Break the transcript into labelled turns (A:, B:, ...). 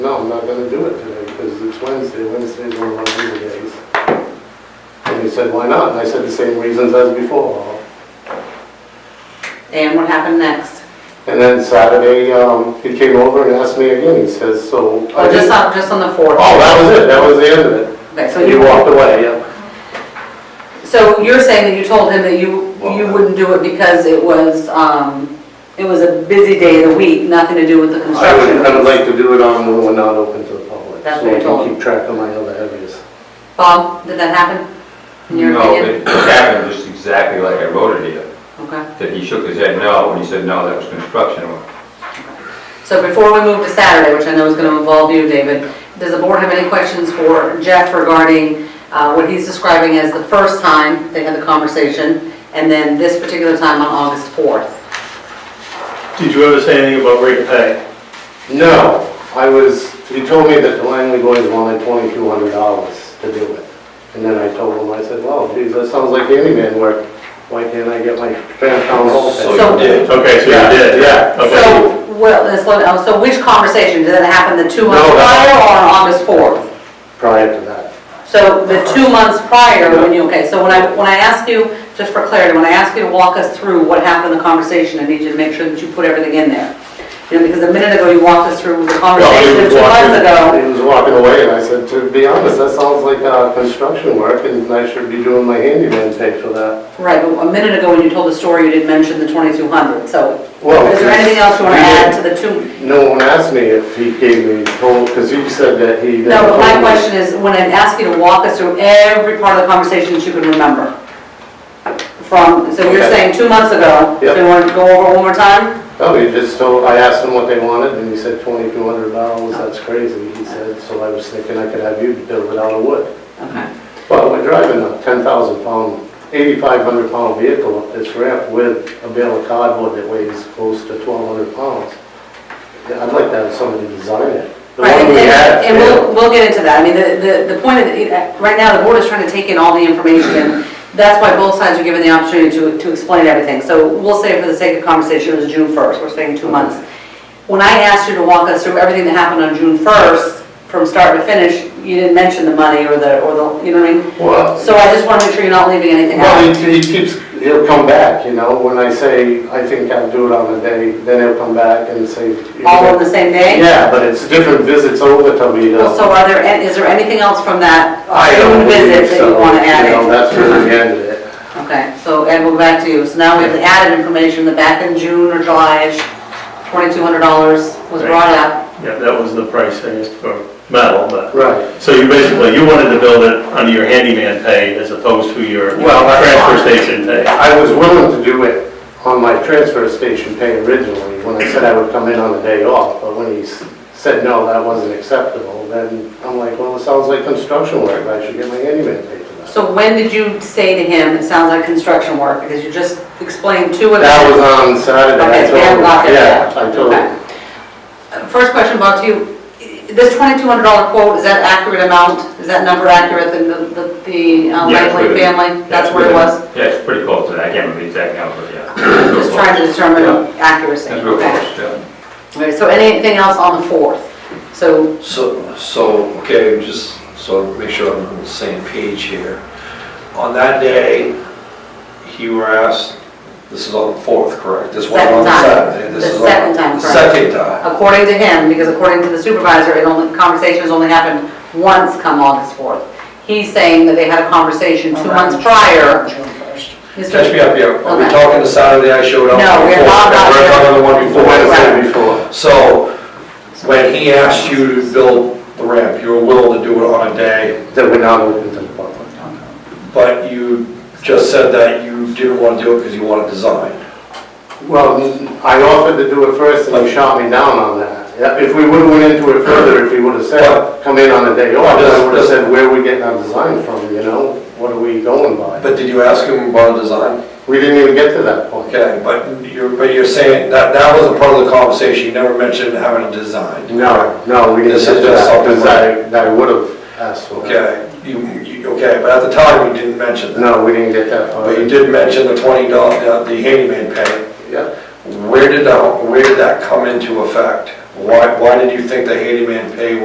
A: I'm not gonna do it today, because it's Wednesday, Wednesday's one of our meeting days. And he said, why not? And I said the same reasons as before.
B: And what happened next?
A: And then Saturday, um, he came over and asked me again, he says, so.
B: Or just on, just on the fourth?
A: Oh, that was it, that was the end of it.
B: Okay, so
A: He
B: you,
A: walked away, yeah.
B: so you're saying that you told him that you, you
A: Well-
B: wouldn't do it because it was, um, it was a busy day of the week, nothing to do with the
A: I
B: construction?
A: would, I would like to do it on when we're not open to the public.
B: That's what
A: So
B: I
A: I
B: told
A: can
B: him.
A: keep track of my other areas.
B: Bob, did that happen? In your
C: No,
B: opinion?
C: it happened just exactly like I wrote it here,
B: Okay,
C: that he shook his head no, when he said, no, that was construction work.
B: so before we move to Saturday, which I know is gonna involve you, David, does the board have any questions for Jeff regarding, uh, what he's describing as the first time they had the conversation, and then this particular time on August fourth?
D: Did you ever say anything about rate of pay?
A: No, I was, he told me that the Langley boys wanted twenty-two hundred dollars to do it. And then I told him, I said, well, geez, that sounds like handyman work. Why can't I get my fan town hall
C: So
A: thing?
B: So-
C: you did.
D: Okay, so
A: Yeah,
D: you did?
A: yeah.
D: Okay.
B: So, well, let's slow down. so which conversation, did that happen the two months
A: No, that-
B: prior or on August 4th?
A: Prior to that.
B: So the
A: Uh-huh.
B: two months prior, when you, okay, so when I, when I ask you, just for clarity, when I ask you to walk us through what happened in the conversation, I need you to make sure that you put everything in there. You know, because a minute ago you walked us through the conversation
A: Well,
B: of
A: he was
B: two months
A: walking-
B: ago.
A: He was walking away, and I said, to be honest, that sounds like, uh, construction work, and I should be doing my handyman pay for that.
B: Right, but a minute ago when you told the story, you didn't mention the 2,200, so
A: Well,
B: is there anything else you want to
A: we
B: add
A: did-
B: to the two?
A: No one asked me if he gave me total, because he said that he.
B: No, but my question is, when I ask you to walk us through every part of the conversation that you can remember. From, so you're
A: Okay.
B: saying two months ago, so you want to go over one more time?
A: No, Oh, he just told, I asked him what they wanted, and he said twenty-two hundred dollars, that's crazy, he said, so I was thinking I could have you build it out of wood.
B: Okay.
A: Well, we're driving a ten thousand pound, eighty-five hundred pound vehicle up this ramp with a bale of cardboard that weighs close to twelve hundred pounds. Yeah, I'd like to have somebody design it. The
B: Right,
A: one we
B: and-
A: had
B: And we'll,
A: failed.
B: we'll get into that. I mean, the, the the point of, the- right now, the board is trying to take in all the information, and that's why both sides are given the opportunity to, to explain everything. So we'll say for the sake of conversation, it was June 1st, we're saying two months. When I asked you to walk us through everything that happened on June 1st, from start to finish, you didn't mention the money or the, or the, you know what I mean?
A: Well,
B: So I just want to make sure you're not leaving anything
A: well,
B: out.
A: he, he keeps, he'll come back, you know, when I say, I think I'll do it on a day, then he'll come back and say.
B: All on the same day?
A: Yeah, but it's different visits over to me,
B: Well,
A: though.
B: So are there, is there anything else from that
A: I
B: June
A: don't
B: visit
A: believe
B: that you
A: so,
B: want to add
A: you know,
B: in?
A: That's really the end of it.
B: Okay, so Ed, we'll go back to you. So now we have the added information that back in June or July-ish, $2,200 was
D: Right.
B: brought up.
D: Yeah, that was the price I used for metal, but,
A: Right,
D: so you basically, you wanted to build it under your handyman pay as opposed to your
A: Well, that's
D: transfer station pay.
A: I was willing to do it on my transfer station pay originally, when I said I would come in on the day off, but when he s- said no, that wasn't acceptable, then I'm like, well, it sounds like construction work, I should get my handyman paid for that.
B: So when did you say to him, it sounds like construction work? Because you just explained two of them.
A: That was on Saturday, I
B: Okay,
A: told
B: Dan
A: him,
B: Block,
A: yeah, I told
B: okay.
A: him.
B: Uh, First question, Bob, to you, this $2,200 quote, is that accurate amount? Is that number accurate, the, the- the uh,
C: Yeah, it's
B: Langley
C: within-
B: family?
C: yeah,
B: That's where it
C: within-
B: was?
C: Yeah, it's pretty close to that, I can't remember the exact number, but yeah.
B: Just trying to determine accuracy.
C: That's real
B: Okay.
C: close, yeah.
B: All right, So anything else on the 4th? So,
E: So, so, okay, just so to make sure I'm on the same page here. On that day, you were asked, this is on the fourth, correct? This one
B: Second
E: on
B: time.
E: Saturday. this
B: The
E: is on-
B: second time,
E: the
B: correct.
E: Second time.
B: according to him, because according to the supervisor, it only, conversations only happened once come August 4th. He's saying that they had a conversation two months prior. Mr.
E: Catch me up here, are we
B: Okay.
E: talking the Saturday I showed up?
B: No,
E: on the
B: we're
E: fourth,
B: not- not
E: We're talking the one
A: The
E: before.
A: Wednesday before,
E: So, when he asked you to build the ramp, you were willing to do it on a day,
A: that we're not open to the public.
E: but you just said that you didn't want to do it because you wanted design.
A: Well, I offered to do it first, and he shot me down on that. Yeah, If we would've went into it further, if he would've said, come in on the day off, I would've said, where are we getting our design from, you know? What are we going by?
E: But did you ask him about a design?
A: We didn't even get to that point.
E: Okay, but you're, but you're saying that, that was a part of the conversation, you never mentioned having a design.
A: No, no, we didn't
E: This is
A: get to
E: just
A: that,
E: something
A: because I, I would've asked for that.
E: Okay, you, you, okay, but at the time, you didn't mention that.
A: No, we didn't get that far.
E: But you did mention the twenty dollar, the handyman pay.
A: Yeah,
E: Where did that, where did that come into effect? Why, why did you think the handyman pay